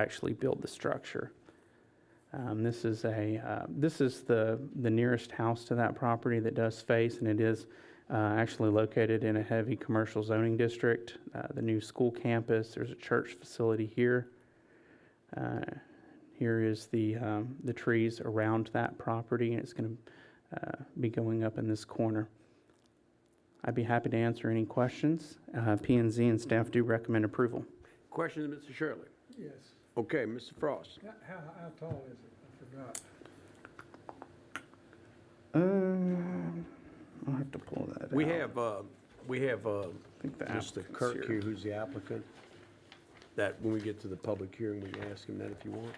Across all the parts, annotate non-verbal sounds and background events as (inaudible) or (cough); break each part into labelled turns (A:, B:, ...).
A: actually build the structure. Um, This is a, uh, this is the, the nearest house to that property that does face, and it is uh, actually located in a heavy commercial zoning district, Uh, the new school campus, there's a church facility here. Uh, Here is the, um, the trees around that property, and it's going to be going up in this corner. I'd be happy to answer any questions. Uh, p and Z and staff do recommend approval.
B: Questions, Mr. Shirley?
C: Yes.
B: Okay, Mr. Frost.
C: How, how how tall is it? I forgot.
A: Um, Uh, I'll have to pull that out.
B: We have, uh, we have uh,
A: think the
B: Mr.
A: applicant's
B: Kirk
A: here.
B: here, who's the applicant, that when we get to the public hearing, we can ask him that if you want.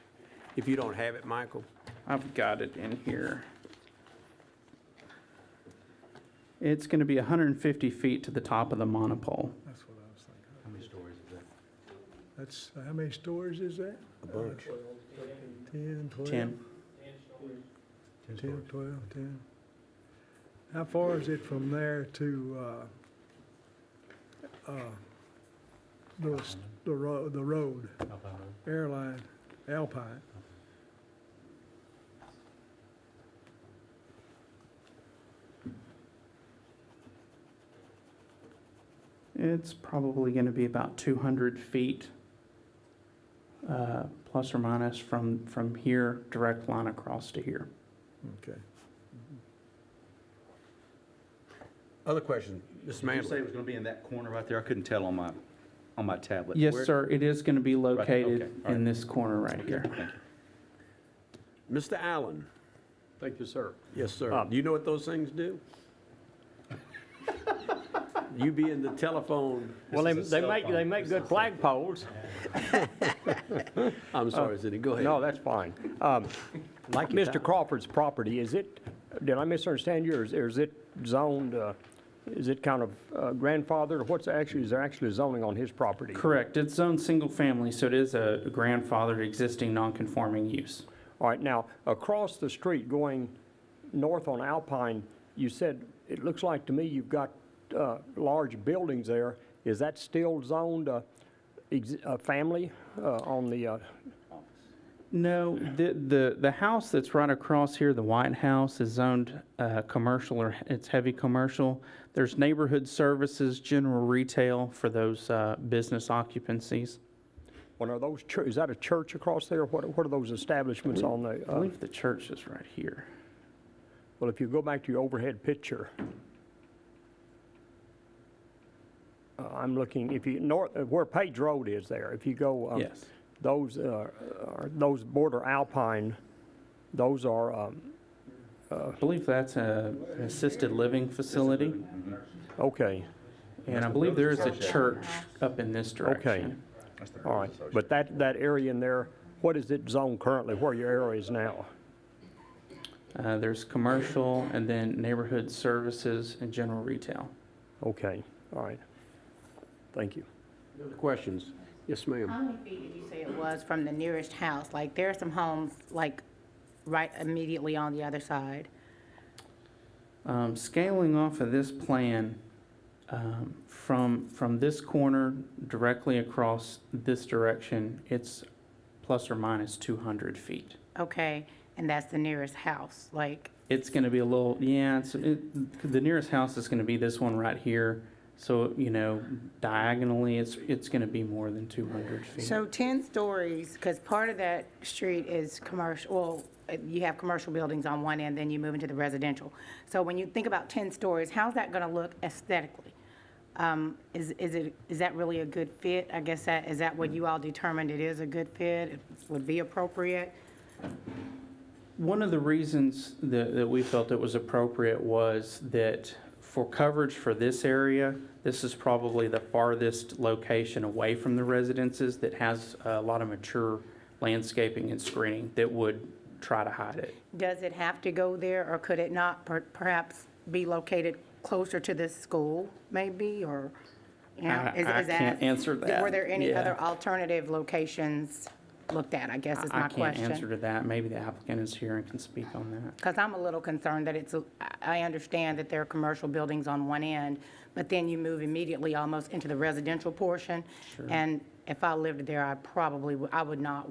B: If you don't have it, Michael,
A: I've got it in here. It's going to be 150 feet to the top of the monopole.
D: Oh,
C: That's what I was thinking.
D: How many stories is that?
C: That's, how many stories is that?
B: a bunch.
C: Ten, twelve?
A: 10.
C: Ten, twelve, ten. How far is it from there to, uh, uh, the, s- the ro- the road, airline, Alpine?
A: It's probably going to be about 200 feet, uh, plus or minus, from, from here, direct line across to here.
C: Okay.
B: Other questions, Mr.
D: Did you say it
B: Manley?
D: was gonna be in that corner right there? I couldn't tell on my, on my tablet.
A: Yes,
D: Where-
A: sir, it is going to be
D: okay,
A: located
D: all
A: in
D: right.
A: this corner right
D: Okay,
A: here.
D: thank you.
B: Mr. Allen?
E: Thank you, sir.
B: Yes, sir.
E: Uh,
B: You know what those things do? You be in the telephone,
E: Well, they,
D: is a
E: they
D: cell
E: make,
D: phone.
E: they make good flag poles.
B: I'm sorry, Cindy, go ahead.
E: No, that's fine.
D: (laughs)
E: Um, Like Mr. Crawford's property, is it, did I misunderstand you, or is- or is it zoned, uh, is it kind of uh, grandfathered, or what's actually, is there actually zoning on his property?
A: Correct, it's zoned single-family, so it is a grandfathered existing non-conforming use.
E: All right, now, across the street going north on Alpine, you said, it looks like to me you've got uh, large buildings there. Is that still zoned uh, ex- uh, family uh, on the, uh,
A: No, the, the, the house that's right across here, the White House, is zoned, uh, commercial or it's heavy commercial. There's neighborhood services, general retail for those, uh, business occupancies.
E: Well, are those, chur- is that a church across there? What, what are those establishments on the,
A: I
E: uh,
A: believe the church is right here.
E: well, if you go back to your overhead picture, uh, I'm looking, if you, north, uh, where Page Road is there, if you go, um,
A: Yes.
E: those, uh, are, those border Alpine, those are, um,
A: I believe that's a an assisted living facility.
E: okay,
A: And I believe there is a church up in this
E: okay.
A: direction.
D: That's the
E: All right, but that, that area in there, what is it zoned currently, where your arrow is now?
A: Uh, there's commercial and then neighborhood services and general retail.
E: Okay, all right. Thank you.
B: Other Questions? Yes, ma'am.
F: How many feet did you say it was from the nearest house? Like, there are some homes, like, right immediately on the other side.
A: Um, scaling off of this plan, um, from, from this corner directly across this direction, it's plus or minus two hundred feet.
F: Okay, and that's the nearest house, like,
A: It's gonna be a little, yeah, it's, it, the nearest house is gonna be this one right here. So, you know, diagonally, it's, it's gonna be more than two hundred feet.
F: so 10 stories, because part of that street is commercial, well, uh, you have commercial buildings on one end, then you move into the residential. So when you think about 10 stories, how's that going to look aesthetically? Um, Is, is it, is that really a good fit? I guess that, is that what you all determined it is a good fit, it would be appropriate?
A: One of the reasons that, that we felt it was appropriate was that for coverage for this area, this is probably the farthest location away from the residences that has a lot of mature landscaping and screening that would try to hide it.
F: Does it have to go there, or could it not per- perhaps be located closer to this school, maybe, or? you know,
A: I-
F: is-
A: I
F: is that-
A: can't answer that,
F: Were there any
A: yeah.
F: other alternative locations looked at, I guess is
A: I
F: my
A: can't answer
F: question?
A: to that. Maybe the applicant is here and can speak on that.
F: Because I'm a little concerned that it's, a- I I understand that there are commercial buildings on one end, but then you move immediately almost into the residential portion. And if I lived there, I probably, w- I would not